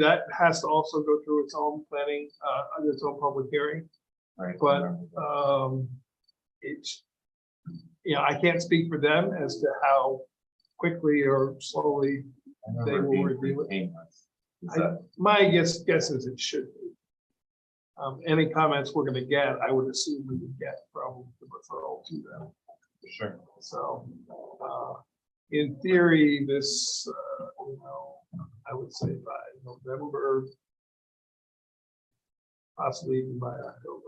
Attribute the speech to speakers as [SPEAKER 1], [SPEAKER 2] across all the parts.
[SPEAKER 1] that has to also go through its own planning, uh, its own public hearing.
[SPEAKER 2] Right.
[SPEAKER 1] But-
[SPEAKER 2] uh,
[SPEAKER 1] Um, it's, you know, I can't speak for them as to how quickly or slowly.
[SPEAKER 2] I remember
[SPEAKER 1] they
[SPEAKER 2] it
[SPEAKER 1] will
[SPEAKER 2] being
[SPEAKER 1] review it.
[SPEAKER 2] pretty painless. Is
[SPEAKER 1] I-
[SPEAKER 2] that-
[SPEAKER 1] My guess, guess is it should be. Um, any comments we're gonna get, I would assume we would get from the referral to them.
[SPEAKER 2] Sure.
[SPEAKER 1] So, uh, in theory, this, uh, you know, I would say by November. Possibly even by October,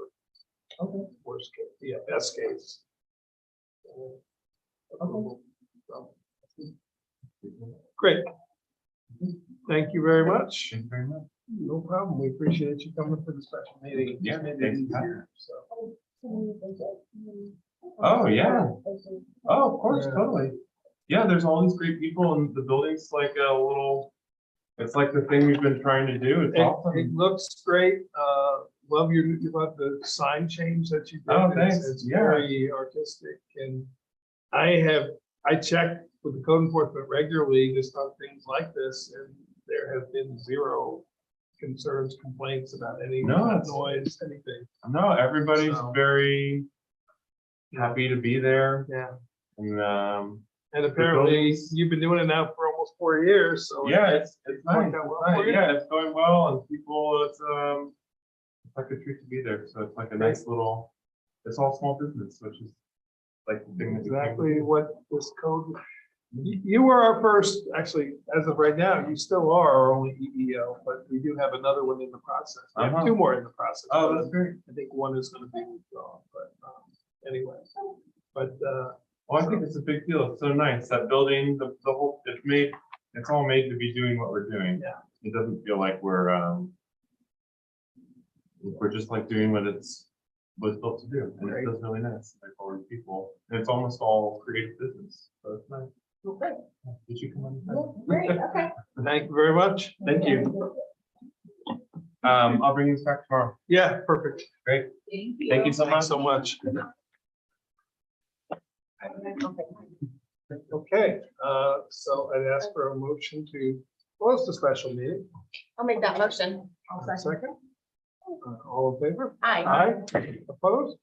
[SPEAKER 2] Okay,
[SPEAKER 1] worst case, yeah, best case. So, Great. Thank you very much.
[SPEAKER 2] Thank you very much.
[SPEAKER 1] No problem. We appreciate you coming for the special meeting.
[SPEAKER 2] Yeah,
[SPEAKER 1] Maybe
[SPEAKER 2] thanks for
[SPEAKER 1] it's
[SPEAKER 2] coming.
[SPEAKER 1] here, so.
[SPEAKER 2] Oh, yeah. Oh, of course,
[SPEAKER 1] Yeah.
[SPEAKER 2] totally. Yeah, there's all these great people and the building's like a little, it's like the thing we've been trying to do. It's
[SPEAKER 1] It, it
[SPEAKER 2] awesome.
[SPEAKER 1] looks great. Uh, love your, you love the sign change that you did.
[SPEAKER 2] Oh,
[SPEAKER 1] It's-
[SPEAKER 2] thanks.
[SPEAKER 1] It's
[SPEAKER 2] Yeah.
[SPEAKER 1] very artistic and I have, I check with the code enforcement regularly just on things like this and there have been zero concerns, complaints about any
[SPEAKER 2] No, it's-
[SPEAKER 1] noise, anything.
[SPEAKER 2] No, everybody's
[SPEAKER 1] So-
[SPEAKER 2] very happy to be there
[SPEAKER 1] Yeah.
[SPEAKER 2] and, um,
[SPEAKER 1] And apparently
[SPEAKER 2] buildings-
[SPEAKER 1] you've been doing it now for almost four years, so.
[SPEAKER 2] yeah, it's, it's nice.
[SPEAKER 1] worked out well
[SPEAKER 2] Right,
[SPEAKER 1] for you.
[SPEAKER 2] yeah, it's going well and people, it's, um, it's like a treat to be there. So it's like a nice little, it's all small business, which is like the thing that we came to
[SPEAKER 1] Exactly
[SPEAKER 2] do.
[SPEAKER 1] what this code, you, you were our first, actually, as of right now, you still are our only EEO, but we do have another one in the process. We have
[SPEAKER 2] Uh-huh.
[SPEAKER 1] two more in the process.
[SPEAKER 2] Oh, that's great.
[SPEAKER 1] I think one is gonna be withdrawn, but, um, anyway, but, uh,
[SPEAKER 2] Well, I think it's a big deal. It's so nice. That building, the, the whole, it's made, it's all made to be doing what we're doing.
[SPEAKER 1] Yeah.
[SPEAKER 2] It doesn't feel like we're, um, we're just like doing what it's, what it's built to do. And
[SPEAKER 1] Right.
[SPEAKER 2] it feels really nice. Like all these people, and it's almost all creative business. So it's nice.
[SPEAKER 3] Okay,
[SPEAKER 2] Did you come on?
[SPEAKER 3] great, okay.
[SPEAKER 1] thank you very much.
[SPEAKER 2] Thank you. Um, I'll bring this back tomorrow.
[SPEAKER 1] Yeah, perfect.
[SPEAKER 2] Thank you so
[SPEAKER 1] Thanks
[SPEAKER 2] much.
[SPEAKER 1] so much.
[SPEAKER 3] you.
[SPEAKER 1] Okay, uh, so I'd ask for a motion to close the special meeting.
[SPEAKER 3] I'll make that motion.
[SPEAKER 1] Second. Uh, All in favor?
[SPEAKER 3] Aye.
[SPEAKER 1] Aye. Opposed?